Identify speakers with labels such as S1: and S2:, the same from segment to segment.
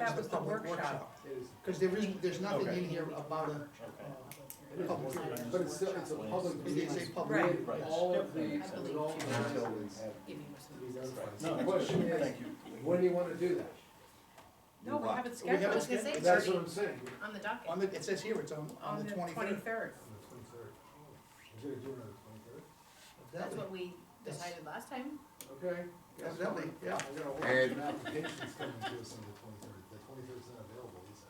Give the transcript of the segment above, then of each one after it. S1: that was the
S2: public
S1: workshop,
S2: workshop.
S3: It is,
S2: Cause there isn't, there's nothing
S4: Okay.
S2: in here about a,
S3: it is,
S2: Public hearing.
S3: but it's still, it's a public
S2: it
S3: meeting.
S2: is a public.
S1: Right.
S2: meeting.
S4: Right.
S3: All of the,
S5: I believe
S3: with all
S5: you.
S3: the
S4: Until we
S3: residents have
S5: Give me
S3: these
S5: more.
S3: other
S4: Right.
S3: plans.
S4: No,
S3: The
S4: that's-
S3: question is,
S4: thank you.
S3: when do you wanna do that?
S5: No, we
S4: Right.
S5: haven't
S2: We haven't
S5: scheduled, I was gonna say,
S2: scheduled.
S5: it's
S3: That's what
S5: already
S3: I'm saying.
S5: on the
S2: On
S5: docket,
S2: the, it says here, it's on,
S5: on the
S2: twenty-third.
S5: twenty-third.
S3: the twenty-third. Instead of doing it on the
S5: That's what we decided last time.
S3: twenty-third. Okay. guess what?
S2: Definitely, yeah.
S3: I got a whole bunch of
S4: And-
S3: applications coming to us on the twenty-third. The twenty-third's not available, is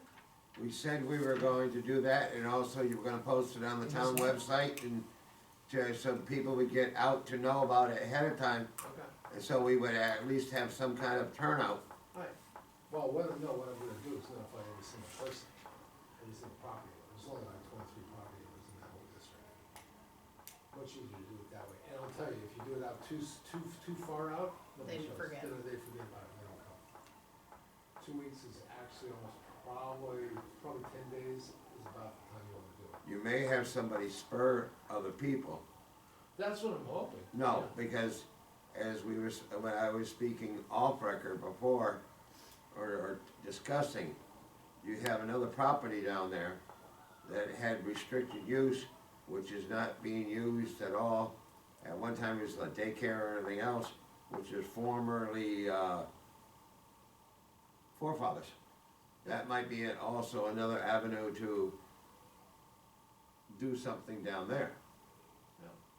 S3: it?
S6: We said we were going to do that, and also you were gonna post it on the town website, and to, so people would get out to know about it ahead of time,
S3: Okay.
S6: and so we would at least have some kind of turnout.
S3: Alright. Well, what, I'm- no, what I'm gonna do is notify every single person, every single property owner. There's only like twenty-three property owners in that whole district. Much easier to do it that way. And I'll tell you, if you do it out too, s- too, too far out, nobody
S5: They
S3: shows.
S5: forget.
S3: They they forget about it, they don't come. Two weeks is actually almost probably, probably ten days is about the time you wanna do it.
S6: You may have somebody spur other people.
S3: That's what I'm hoping.
S6: No, because as we were, s- when I was speaking off record before, or, or discussing, you have another property down there that had restricted use, which is not being used at all. At one time it was a daycare or anything else, which is formerly, uh, forefathers. That might be it also another avenue to do something down there.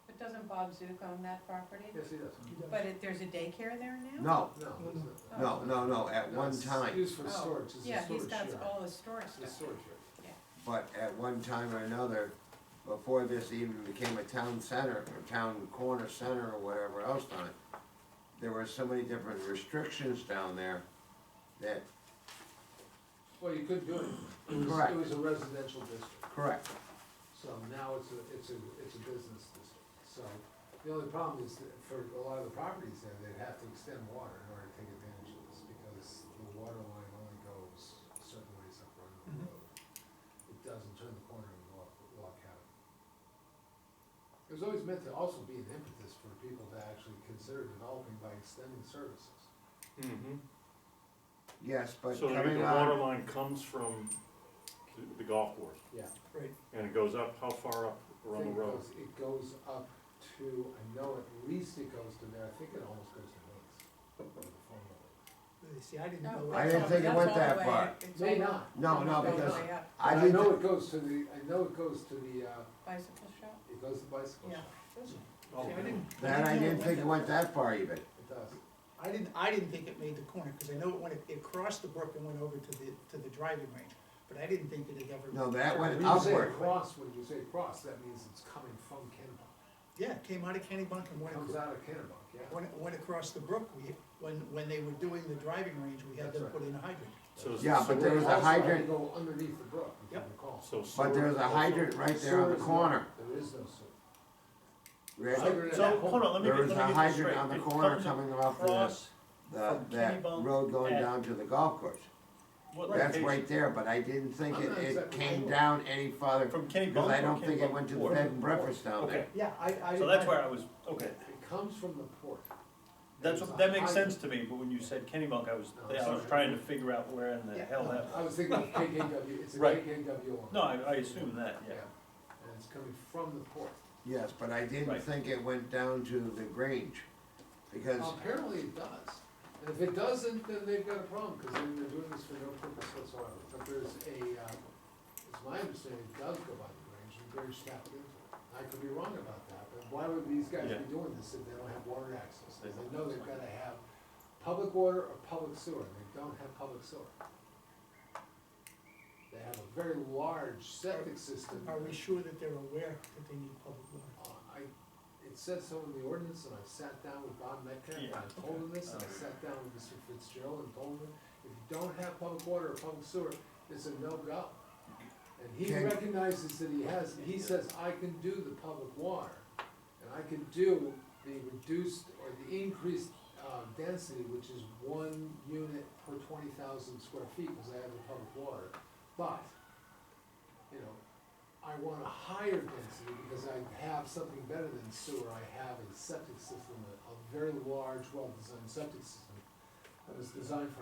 S7: But doesn't Bob Zook own that property?
S3: Yes, he does.
S7: But it, there's a daycare there now?
S6: No,
S3: No. it's not.
S8: Oh.
S6: No, no, no, at
S3: No,
S6: one
S3: it's
S6: time,
S3: Used for
S7: Oh,
S3: storage, it's a storage
S7: Yeah, he's got
S3: shed.
S7: all his storage
S3: It's a
S7: stuff.
S3: storage shed.
S6: but at one time or another, before this even became a town center, or town corner center, or whatever else on it, there were so many different restrictions down there that,
S3: Well, you could do it. It was,
S6: Correct.
S3: it was a residential district,
S6: correct,
S3: so now it's a, it's a, it's a business district. So the only problem is that for a lot of the properties there, they'd have to extend water in order to take advantage of this because the water line only goes certain ways up Rundle Road. It doesn't turn the corner and walk, walk out. It was always meant to also be an impetus for people to actually consider developing by extending services.
S8: Mm-hmm.
S6: yes, but
S8: So maybe
S6: coming
S8: the
S6: on,
S8: water line comes from the- the golf course,
S3: Yeah.
S8: and it goes up, how far up
S3: think
S8: around the road?
S3: goes- It goes up to, I know at least it goes to there, I think it almost goes to Nate's.
S2: See, I didn't know.
S7: No, Oh,
S6: I
S7: that's
S6: didn't
S7: all-
S6: think it
S7: that's
S6: went
S7: all the
S6: that
S7: way-
S6: far.
S7: it's
S3: May
S7: all
S3: not.
S6: no,
S7: all
S6: no,
S7: the way
S6: because
S7: up.
S6: I
S3: But I
S6: did,
S3: know
S6: not
S3: it goes to the, I know it goes to the, uh,
S7: Bicycle shop?
S3: it goes to bicycle
S7: Yeah.
S3: shop,
S8: Oh,
S2: See, I
S8: really?
S2: didn't-
S6: that I
S2: know
S6: didn't think it went that far even,
S3: it does.
S2: I didn't, I didn't think it made the corner, cause I know it went, it crossed the brook and went over to the, to the driving range, but I didn't think it had ever.
S6: no, that went
S3: When you say
S6: upward,
S3: cross, when you say cross, that means it's coming from Kennebunk,
S2: Yeah, it came out of Kennybunk and went,
S3: comes
S2: acro-
S3: out of Kennebunk, yeah.
S2: went, went across the brook, we, when, when they were doing the driving range, we had
S3: That's
S2: them
S3: right.
S2: put in a hydrant.
S8: So is the
S6: Yeah, but
S8: sewer
S6: there was a
S8: also-
S3: Also,
S6: hydrant.
S3: they Go underneath the brook, if you
S2: Yep.
S3: recall.
S8: So sewer.
S6: but there's a
S8: also-
S6: hydrant right there on
S3: Sewer
S6: the
S3: is not-
S6: corner.
S3: There is no sewer.
S6: Rick,
S3: So-
S9: So, hold on, let me, get- let me
S6: There
S9: get
S6: was
S9: this
S6: a
S9: straight.
S6: hydrant on the
S9: It
S6: corner
S9: comes
S6: coming off the-
S9: across-
S6: the,
S9: From
S6: that
S9: Kennybunk
S6: road going
S9: at-
S6: down to the golf course.
S9: what
S6: That's
S9: location?
S6: right there, but I didn't think
S3: I'm
S6: it,
S3: not
S6: it
S3: exactly
S6: came
S3: sure.
S6: down any farther,
S9: From
S6: because I
S9: Kennybunk
S6: don't
S9: or
S6: think it
S9: Kennybunk
S6: went to the
S9: Ward?
S6: bed and breakfast down there.
S9: Okay,
S3: Yeah, I, I.
S9: so that's where I was, okay,
S3: It comes from the port.
S9: that's, what- that makes sense to me, but when you said Kennybunk, I was, I was trying to figure out where in the hell that
S3: I was
S9: was.
S3: thinking of KKW, it's a
S9: Right.
S3: KKW owner.
S9: No, I, I assume that, yeah.
S3: And it's coming from the port.
S6: Yes, but I didn't
S9: Right.
S6: think it went down to the Grange, because,
S3: Apparently it does. And if it doesn't, then they've got a problem, because then they're doing this for no purpose whatsoever. But there's a, uh, it's my understanding, it does go by the Grange, and Grange tapped into it. I could be wrong about that, but why would these guys
S9: Yeah.
S3: be doing this if they don't have water access?
S9: They
S3: They
S9: don't.
S3: know they've gotta have public water or public sewer, and they don't have public sewer. They have a very large septic system.
S2: Are we sure that they're aware that they need public water?
S3: Uh, I, it says so in the ordinance, and I sat down with Bob Metcalf, and I
S9: Yeah.
S3: told him this, and I sat down with Mr. Fitzgerald and told him, if you don't have public water or public sewer, it's a no-go. And he
S6: Can-
S3: recognizes that he has, he says, I can do the public water, and I can do the reduced or the increased, uh, density, which is one unit per twenty thousand square feet, cause I have the public water. But, you know, I want a higher density because I have something better than sewer, I have a septic system, a, a very large, well-designed septic system that was designed for